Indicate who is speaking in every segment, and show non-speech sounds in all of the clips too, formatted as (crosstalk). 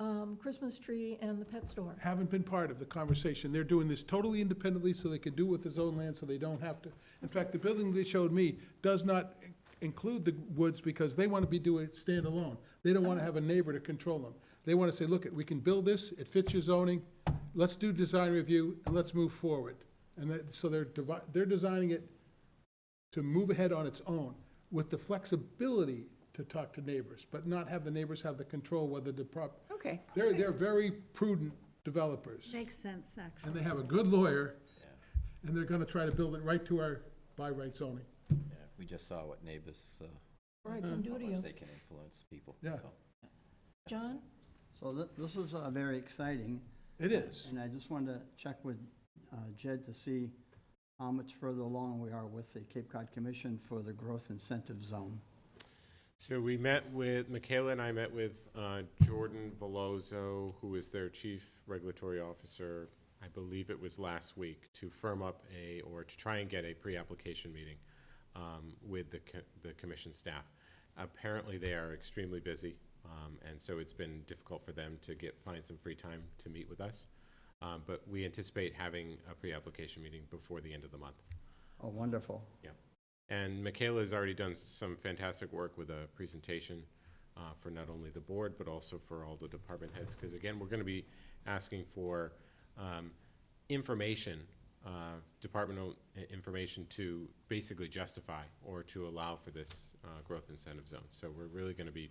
Speaker 1: um, Christmas tree and the pet store.
Speaker 2: haven't been part of the conversation. They're doing this totally independently so they can do with his own land, so they don't have to. In fact, the building they showed me does not in- include the woods because they want to be doing it standalone. They don't want to have a neighbor to control them. They want to say, look, we can build this, it fits your zoning, let's do design review and let's move forward. And that, so they're divi, they're designing it to move ahead on its own with the flexibility to talk to neighbors, but not have the neighbors have the control whether the prop,
Speaker 3: Okay.
Speaker 2: they're, they're very prudent developers,
Speaker 4: Makes sense, actually.
Speaker 2: and they have a good lawyer, and they're gonna try to build it right to our by right zoning.
Speaker 5: Yeah, we just saw what neighbors, uh,
Speaker 1: Or I can
Speaker 2: Mhm.
Speaker 1: do
Speaker 5: how
Speaker 1: to
Speaker 5: much
Speaker 1: you.
Speaker 5: they can influence people.
Speaker 2: Yeah.
Speaker 5: so.
Speaker 1: John?
Speaker 6: So thi- this is uh, very exciting,
Speaker 2: It is.
Speaker 6: and I just wanted to check with uh, Jed to see how much further along we are with the Cape Cod Commission for the Growth Incentive Zone.
Speaker 7: So we met with, Michaela and I met with uh, Jordan Velozo, who is their chief regulatory officer, I believe it was last week, to firm up a, or to try and get a pre-application meeting um, with the, co- the commission staff. Apparently, they are extremely busy, um, and so it's been difficult for them to get, find some free time to meet with us. Um, But we anticipate having a pre-application meeting before the end of the month.
Speaker 6: Oh, wonderful.
Speaker 7: And Michaela has already done some fantastic work with a presentation uh, for not only the board, but also for all the department heads. Because again, we're going to be asking for um, information, uh, departmental i- information to basically justify or to allow for this uh, growth incentive zone. So we're really going to be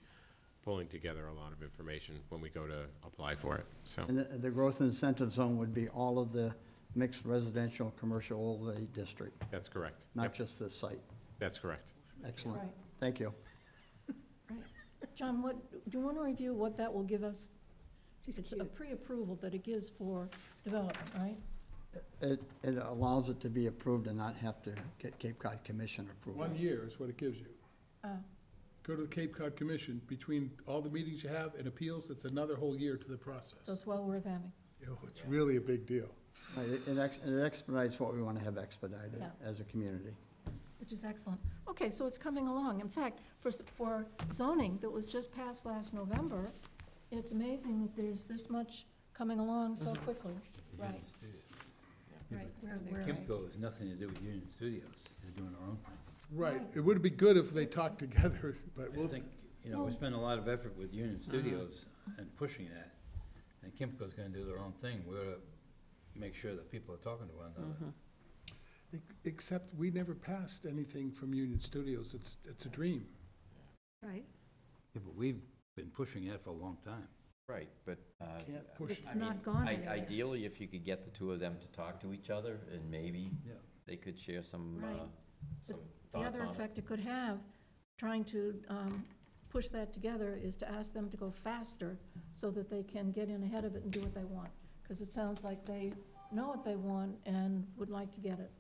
Speaker 7: pulling together a lot of information when we go to apply for it, so.
Speaker 6: And the- the Growth Incentive Zone would be all of the mixed residential, commercial overlay district,
Speaker 7: That's correct.
Speaker 6: not
Speaker 7: Yep,
Speaker 6: just this site.
Speaker 7: That's correct.
Speaker 6: Excellent.
Speaker 1: Right,
Speaker 6: Thank you.
Speaker 1: right. John, what, do you want to review what that will give us? It's a pre-approval that it gives for development, right?
Speaker 6: It it allows it to be approved and not have to get Cape Cod Commission approval.
Speaker 2: One year is what it gives you.
Speaker 1: Oh.
Speaker 2: Go to the Cape Cod Commission, between all the meetings you have and appeals, it's another whole year to the process.
Speaker 1: So it's well worth having.
Speaker 2: Yo, It's really a big deal.
Speaker 6: Right, It it ex- it expedites what we want to have expedited
Speaker 1: Yeah.
Speaker 6: as a community.
Speaker 1: Which is excellent. Okay, so it's coming along. In fact, for, s- for zoning that was just passed last November, it's amazing that there's this much coming along so quickly. Right, right, where, where.
Speaker 8: Kimco has nothing to do with Union Studios, they're doing their own thing.
Speaker 2: Right, it would be good if they talked (laughs) together, but
Speaker 8: I
Speaker 2: we'll,
Speaker 8: think, you know, we
Speaker 1: Well-
Speaker 8: spend a lot of effort with Union Studios and pushing that, and Kimco's gonna do their own thing, we're gonna make sure that people are talking to one another.
Speaker 2: except we never passed anything from Union Studios. It's, it's a dream.
Speaker 4: Right,
Speaker 8: Yeah, but we've been pushing that for a long time.
Speaker 5: Right, but. uh,
Speaker 2: Can't push
Speaker 5: I
Speaker 2: it.
Speaker 4: it's
Speaker 5: mean,
Speaker 4: not gone
Speaker 5: i-
Speaker 4: anywhere.
Speaker 5: Ideally, if you could get the two of them to talk to each other, and maybe
Speaker 8: Yeah.
Speaker 5: they could share some,
Speaker 1: Right.
Speaker 5: uh, some
Speaker 1: The
Speaker 5: thoughts
Speaker 1: other
Speaker 5: on it.
Speaker 1: effect it could have, trying to um, push that together, is to ask them to go faster so that they can get in ahead of it and do what they want. Because it sounds like they know what they want and would like to get it.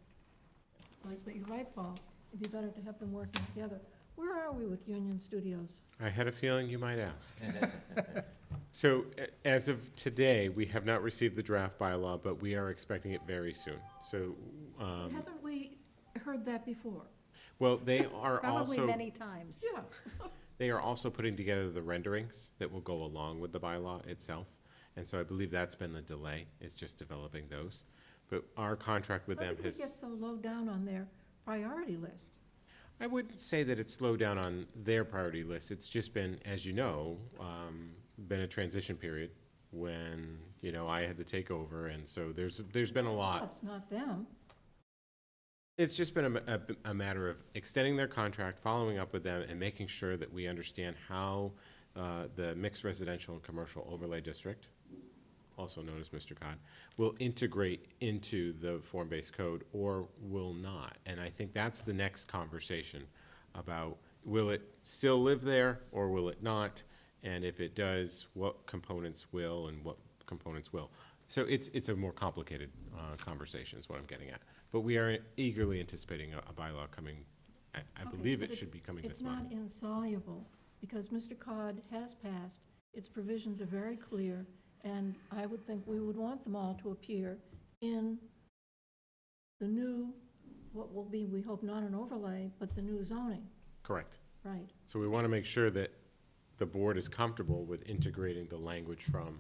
Speaker 1: Like, but you're right, Paul, it'd be better to have them working together. Where are we with Union Studios?
Speaker 7: I had a feeling you might ask. So a- as of today, we have not received the draft bylaw, but we are expecting it very soon. So, um,
Speaker 1: Haven't we heard that before?
Speaker 7: (laughs) well, they
Speaker 4: (laughs)
Speaker 7: are
Speaker 4: Probably
Speaker 7: also,
Speaker 4: many times.
Speaker 1: Yeah.
Speaker 7: they are also putting together the renderings that will go along with the bylaw itself. And so I believe that's been the delay, is just developing those. But our contract with
Speaker 1: How
Speaker 7: them
Speaker 1: did we
Speaker 7: has.
Speaker 1: get so low down on their priority list?
Speaker 7: I wouldn't say that it's slowed down on their priority list. It's just been, as you know, um, been a transition period when, you know, I had to take over, and so there's, there's been a lot.
Speaker 1: Us, not them.
Speaker 7: It's just been a ma- a, b- a matter of extending their contract, following up with them, and making sure that we understand how uh, the mixed residential and commercial overlay district, also known as Mr. Cod, will integrate into the form-based code or will not. And I think that's the next conversation about, will it still live there or will it not? And if it does, what components will and what components will? So it's, it's a more complicated uh, conversation is what I'm getting at. But we are eagerly anticipating a a bylaw coming, I- I
Speaker 1: Okay,
Speaker 7: believe
Speaker 1: but
Speaker 7: it should be coming this
Speaker 1: It's not
Speaker 7: month.
Speaker 1: insoluble, because Mr. Cod has passed, its provisions are very clear, and I would think we would want them all to appear in the new, what will be, we hope not an overlay, but the new zoning,
Speaker 7: Correct.
Speaker 1: right?
Speaker 7: So we want to make sure that the board is comfortable with integrating the language from